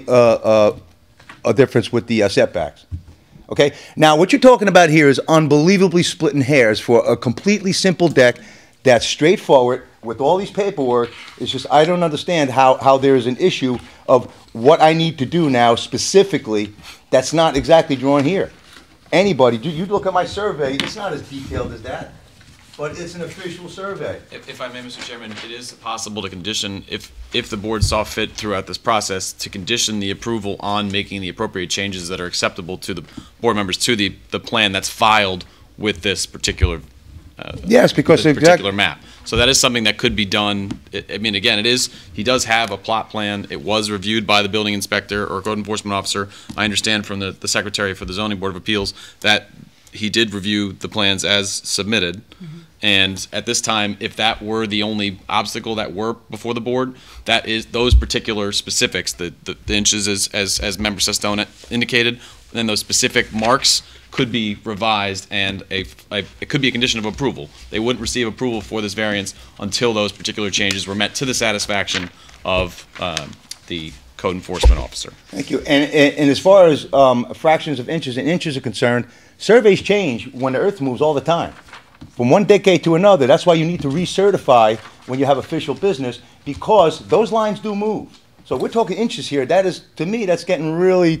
uh, uh, a difference with the uh, setbacks. Okay, now what you're talking about here is unbelievably splitting hairs for a completely simple deck that's straightforward with all these paperwork. It's just, I don't understand how, how there is an issue of what I need to do now specifically that's not exactly drawn here. Anybody, you, you look at my survey, it's not as detailed as that, but it's an official survey. If, if I may, Mr. Chairman, it is possible to condition, if, if the board saw fit throughout this process, to condition the approval on making the appropriate changes that are acceptable to the board members to the, the plan that's filed with this particular, Yes, because this the exact- particular map. So that is something that could be done. I, I mean, again, it is, he does have a plot plan. It was reviewed by the building inspector or code enforcement officer. I understand from the, the secretary for the zoning board of appeals that he did review the plans as submitted. And at this time, if that were the only obstacle that were before the board, that is those particular specifics, the, the, the inches as, as, as member Sestone indicated, then those specific marks could be revised and a, a, it could be a condition of approval. They wouldn't receive approval for this variance until those particular changes were met to the satisfaction of, um, the code enforcement officer. Thank you. And, and, and as far as um, fractions of inches and inches are concerned, surveys change when the earth moves all the time. From one decade to another, that's why you need to recertify when you have official business because those lines do move. So we're talking inches here. That is, to me, that's getting really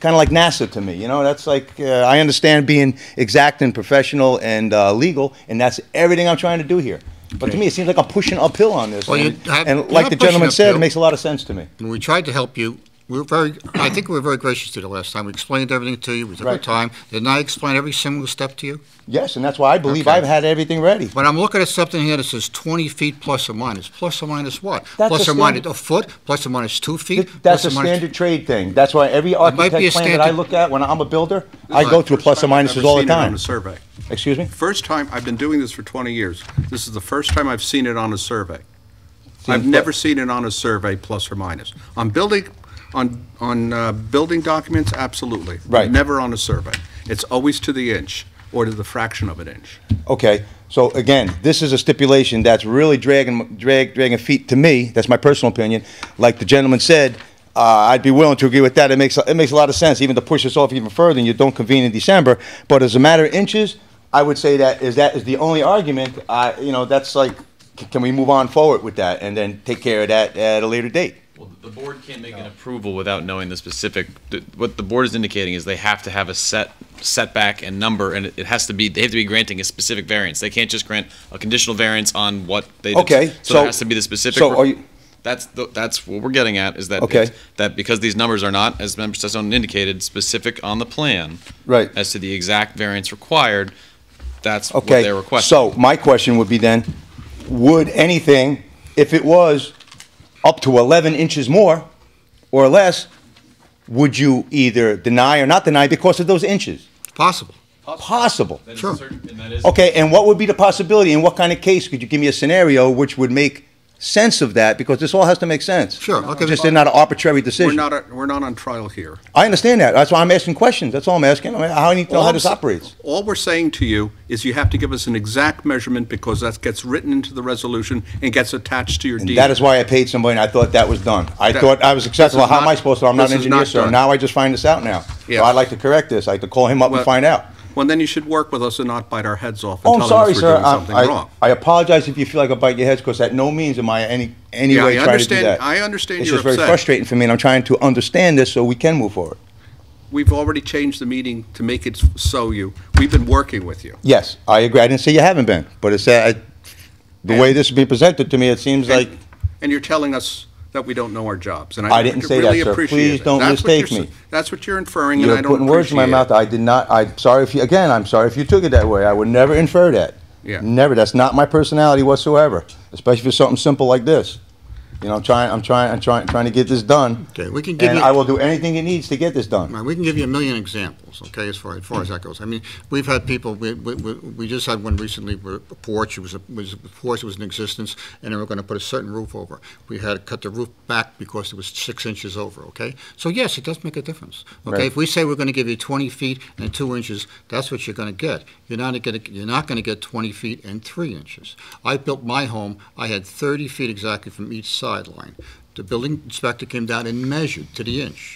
kind of like NASA to me. You know, that's like, uh, I understand being exact and professional and uh, legal, and that's everything I'm trying to do here. But to me, it seems like I'm pushing uphill on this. Well, you and, have- and you're like not the pushing gentleman said, it uphill. makes a lot of sense to me. And we tried to help you. We were very, I think we were very gracious to you the last time. We explained everything to you. We took our Right. time. Didn't I explain every single step to you? Yes, and that's why I believe Okay. I've had everything ready. But I'm looking at something here that says 20 feet plus or minus. Plus or minus what? That's Plus a or minus standard- a foot, plus or minus two feet? Th- That's a plus or minus- standard trade thing. That's why every might be a architect plan that I standard- look at when I'm a builder, I go through First plus or time I've minuses ever all the seen it On time. a survey. Excuse me? First time, I've been doing this for 20 years. This is the first time I've seen it on a survey. Seems I've that- never seen it on a survey, plus or minus. On building, on, on uh, building documents, absolutely. Right. Never on a survey. It's always to the inch, or to the fraction of an inch. Okay, so again, this is a stipulation that's really dragging, drag, dragging feet to me. That's my personal opinion. Like the gentleman said, uh, I'd be willing to agree with that. It makes, it makes a lot of sense, even to push this off even further and you don't convene in December. But as a matter of inches, I would say that is, that is the only argument. I, you know, that's like, c- can we move on forward with that and then take care of that at a later date? Well, the board can't make an approval without knowing the specific, th- what the board is indicating is they have to have a set setback and number, and it it has to be, they have to be granting a specific variance. They can't just grant a conditional variance on what they. Okay, So so- it has to be the specific. so are you- That's, the- that's what we're getting at, is that. Okay. That because these numbers are not, as Member Sessom indicated, specific on the plan. Right. As to the exact variance required, that's what Okay. they're requesting. So my question would be then, would anything, if it was up to 11 inches more or less, would you either deny or not deny because of those inches? It's Possible. Possible. That is a Sure. certain- and that is- Okay, and what would be the possibility and what kind of case? Could you give me a scenario which would make sense of that? Because this all has to make sense. Sure, I'll give Just you- they're not an arbitrary We're decision. not, a- we're not on trial here. I understand that. That's why I'm asking questions. That's all I'm asking. I mean, How I need to know All how I'm this sa- operates. All we're saying to you is you have to give us an exact measurement, because that gets written into the resolution and gets attached to your deed. And that is why I paid somebody, and I thought that was done. I That- thought I was this acceptable. is How am I not- supposed to? I'm not an this is engineer, not sir. done. Now I just find this out now. So Yeah. I'd like to correct this. I like to call him up and Well- find out. Well, then you should work with us and not bite our heads off Oh, and I'm tell sorry, us we're sir. doing I- something I wrong. I apologize if you feel like I bite your heads, because at no means am I any, any Yeah, way trying to I do understand- that. I understand It's you're just very upset. frustrating for me, and I'm trying to understand this so we can move forward. We've already changed the meeting to make it so you. We've been working with you. Yes, I agree. I didn't say you haven't been, but it's, uh, I- the way this is being presented to me, it seems like, And- And you're telling us that we don't know our jobs, and I I didn't really say that, sir. appreciate Please it. don't That's what you're mistake s- me. That's what you're inferring, and I you're don't putting words in my appreciate mouth. it. I did not, I'm sorry if you, again, I'm sorry if you took it that way. I would never infer that. Yeah. Never. That's not my personality whatsoever, especially for something simple like this. You know, I'm trying, I'm trying, I'm trying, trying to get this done. Okay, we can give And you- I will do anything it needs to get this done. All right, we can give you a million examples, okay, as far, as far as that goes. I mean, we've had people, we, we, we we just had one recently where a porch was, was, a porch was in existence, and they were gonna put a certain roof over. We had to cut the roof back because it was six inches over, okay? So yes, it does make a difference, Right. okay? If we say we're gonna give you twenty feet and two inches, that's what you're gonna get. You're not gonna, you're not gonna get twenty feet and three inches. I built my home, I had thirty feet exactly from each sideline. The building inspector came down and measured to the inch.